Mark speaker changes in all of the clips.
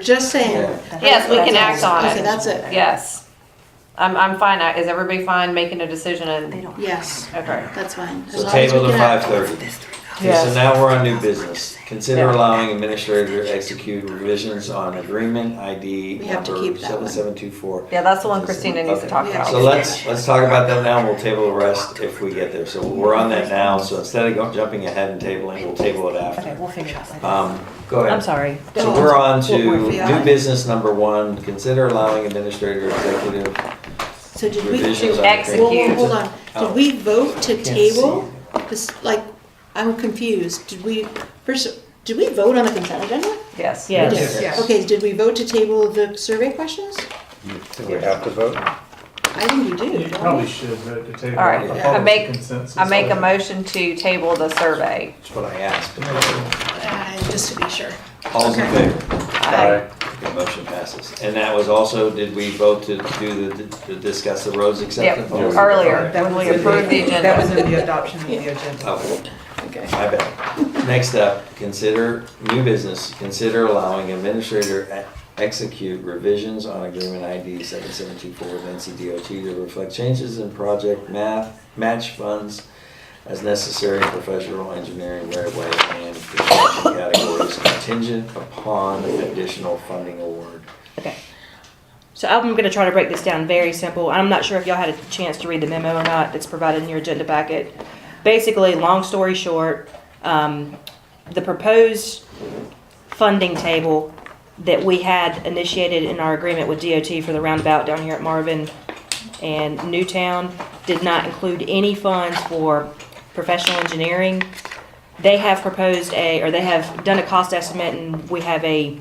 Speaker 1: Just saying.
Speaker 2: Yes, we can act on
Speaker 1: Okay,
Speaker 2: it.
Speaker 1: that's it.
Speaker 2: Yes. I'm, I'm fine. I- Is everybody fine making a decision and,
Speaker 1: Yes,
Speaker 2: okay.
Speaker 1: that's fine. As
Speaker 3: So
Speaker 1: long as we
Speaker 3: table to
Speaker 1: can
Speaker 3: five
Speaker 1: act on it.
Speaker 3: thirty. Okay, so
Speaker 2: Yes.
Speaker 3: now we're on new business. Consider
Speaker 2: Yeah.
Speaker 3: allowing administrator to execute revisions on agreement ID
Speaker 1: We have to
Speaker 3: number
Speaker 1: keep that
Speaker 3: seven
Speaker 1: one.
Speaker 3: seven two four.
Speaker 2: Yeah, that's the one Christina needs to talk
Speaker 3: So
Speaker 2: about.
Speaker 3: let's, let's talk about that now, and we'll table the rest if we get there. So we're on that now, so instead of go- jumping ahead and tabling, we'll table it
Speaker 4: Okay,
Speaker 3: after.
Speaker 4: we'll figure it out later.
Speaker 3: Um, go ahead.
Speaker 4: I'm sorry.
Speaker 3: So we're on to
Speaker 1: What we're feeling.
Speaker 3: new business number one, consider allowing administrator executive
Speaker 1: So did we,
Speaker 3: revisions
Speaker 1: do?
Speaker 3: on.
Speaker 2: execute.
Speaker 1: whoa, whoa,
Speaker 3: agreement.
Speaker 1: hold on.
Speaker 3: Oh.
Speaker 1: Did we vote to
Speaker 3: Can't
Speaker 1: table? This, like, I'm confused. Did we, first, did we vote on the consent agenda?
Speaker 2: Yes.
Speaker 4: Yeah. Yes.
Speaker 5: Yes.
Speaker 1: Okay, did we vote to table the survey questions?
Speaker 6: Do we have to vote?
Speaker 1: I think we do.
Speaker 5: You probably should, but to table.
Speaker 2: All right,
Speaker 3: I
Speaker 5: the
Speaker 2: make-
Speaker 5: consensus.
Speaker 2: I make a motion to table the survey.
Speaker 3: That's what I asked.
Speaker 1: Uh, Just to be sure.
Speaker 3: All's in
Speaker 1: Okay.
Speaker 3: favor?
Speaker 2: Aye.
Speaker 3: The motion passes. And that was also, did we vote to do the, to discuss the roads
Speaker 2: Yep,
Speaker 3: acceptance?
Speaker 2: earlier,
Speaker 3: Okay.
Speaker 2: when we approved the
Speaker 7: That was
Speaker 2: agenda.
Speaker 7: in the adoption of the agenda.
Speaker 3: Oh,
Speaker 1: Okay.
Speaker 3: my bad. Next up, consider, new business, consider allowing administrator e- execute revisions on agreement ID seven seven two four with NCDOT to reflect changes in project math, match funds as necessary in professional engineering right-of-way and construction categories contingent upon additional funding award.
Speaker 4: Okay. So I'm going to try to break this down very simple. I'm not sure if y'all had a chance to read the memo or not that's provided in your agenda packet. Basically, long story short, um, the proposed funding table that we had initiated in our agreement with DOT for the roundabout down here at Marvin and Newtown did not include any funds for professional engineering. They have proposed a, or they have done a cost estimate and we have a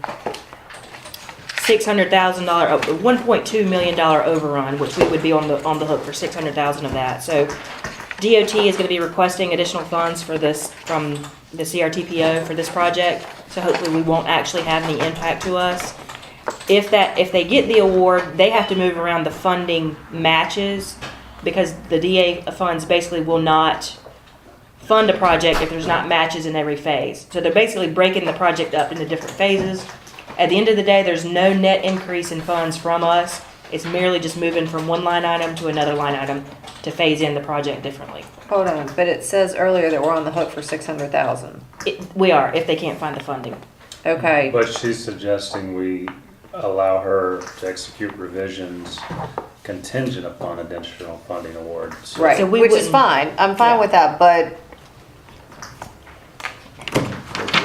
Speaker 4: six hundred thousand dollar, oh, one point two million dollar overrun, which we would be on the, on the hook for six hundred thousand of that. So DOT is gonna be requesting additional funds for this, from the CRTPO for this project. So hopefully we won't actually have any impact to us. If that, if they get the award, they have to move around the funding matches because the DA funds basically will not fund a project if there's not matches in every phase. So they're basically breaking the project up into different phases. At the end of the day, there's no net increase in funds from us. It's merely just moving from one line item to another line item to phase in the project differently.
Speaker 2: Hold on, but it says earlier that we're on the hook for six hundred thousand.
Speaker 4: It, we are, if they can't find the funding.
Speaker 2: Okay,
Speaker 6: But she's suggesting we allow her to execute revisions contingent upon additional funding awards.
Speaker 2: right,
Speaker 4: So we
Speaker 2: which is
Speaker 4: wouldn't-
Speaker 2: fine. I'm fine
Speaker 4: Yeah.
Speaker 2: with that, but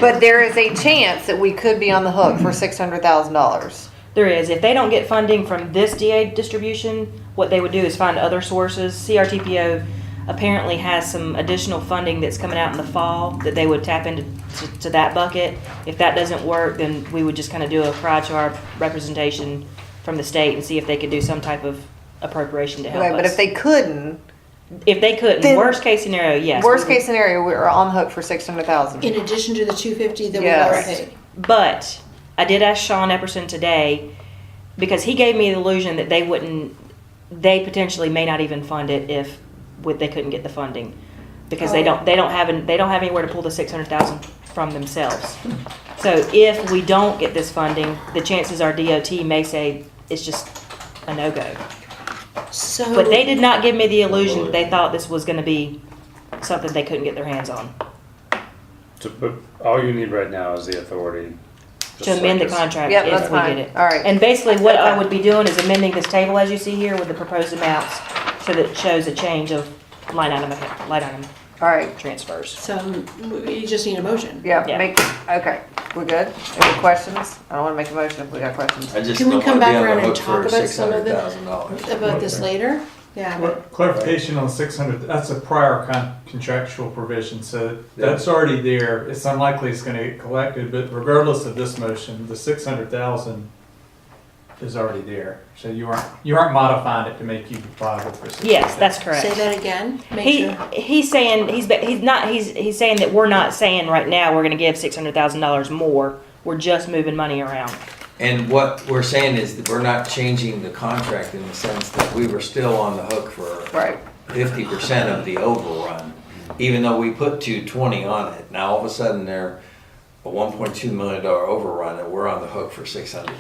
Speaker 2: but there is a chance that we could be on the hook for six hundred thousand dollars.
Speaker 4: There is. If they don't get funding from this DA distribution, what they would do is find other sources. CRTPO apparently has some additional funding that's coming out in the fall that they would tap into to, to that bucket. If that doesn't work, then we would just kind of do a cry to our representation from the state and see if they could do some type of appropriation to help
Speaker 2: Okay, but
Speaker 4: us.
Speaker 2: if they couldn't,
Speaker 4: if they couldn't,
Speaker 2: Then-
Speaker 4: worst case scenario, yes.
Speaker 2: worst case scenario, we're on the hook for six hundred thousand.
Speaker 1: In addition to the two fifty that we
Speaker 2: Yes.
Speaker 1: already paid.
Speaker 4: But I did ask Sean Epperson today because he gave me the illusion that they wouldn't, they potentially may not even fund it if would- they couldn't get the funding because
Speaker 2: Oh.
Speaker 4: they don't they don't have an, they don't have anywhere to pull the six hundred thousand from themselves. So if we don't get this funding, the chances are DOT may say it's just a no go.
Speaker 1: So.
Speaker 4: But they did not give me the illusion that they thought this was going to be something they couldn't get their hands on
Speaker 6: To put- all you need right now is the authority. just
Speaker 4: to amend the
Speaker 6: like this.
Speaker 4: contract
Speaker 2: Yep,
Speaker 4: if
Speaker 2: that's
Speaker 4: we
Speaker 2: fine.
Speaker 4: get it.
Speaker 2: All right.
Speaker 4: And basically, what I
Speaker 2: Okay.
Speaker 4: would be doing is amending this table as you see here with the proposed amounts, so that it shows a change of line item, account- line item
Speaker 2: All right.
Speaker 4: transfers.
Speaker 1: So you just need a motion.
Speaker 2: Yeah,
Speaker 4: Yeah.
Speaker 2: make, okay, we're good? Any questions? I don't wanna make a motion if we got questions.
Speaker 3: I just
Speaker 1: Can we
Speaker 3: don't
Speaker 1: come
Speaker 3: wanna be
Speaker 1: back
Speaker 3: on the
Speaker 1: around and
Speaker 3: hook
Speaker 1: talk
Speaker 3: for
Speaker 1: about
Speaker 3: six
Speaker 1: some of
Speaker 3: hundred
Speaker 1: the-
Speaker 3: thousand dollars.
Speaker 1: About this later? Yeah,
Speaker 5: Clar-
Speaker 1: but
Speaker 5: Clarification on six hundred, that's a prior con- contractual provision, so that's already there. It's unlikely it's gonna get collected, but regardless of this motion, the six hundred thousand is already there. So you aren't, you aren't modifying it to make you liable for six.
Speaker 4: Yes, that's
Speaker 1: say
Speaker 4: correct.
Speaker 1: that again. Make
Speaker 4: He,
Speaker 1: sure.
Speaker 4: he's saying, he's, ba- he's not, he's, he's saying that we're not saying right now we're gonna give six hundred thousand dollars more. We're just moving money around.
Speaker 3: And what we're saying is that we're not changing the contract in the sense that we were still on the hook for
Speaker 2: Right,
Speaker 3: fifty percent of the overrun, even though we put two twenty on it. Now, all of a sudden, they're, a one point two million dollar overrun, and we're on the hook for six hundred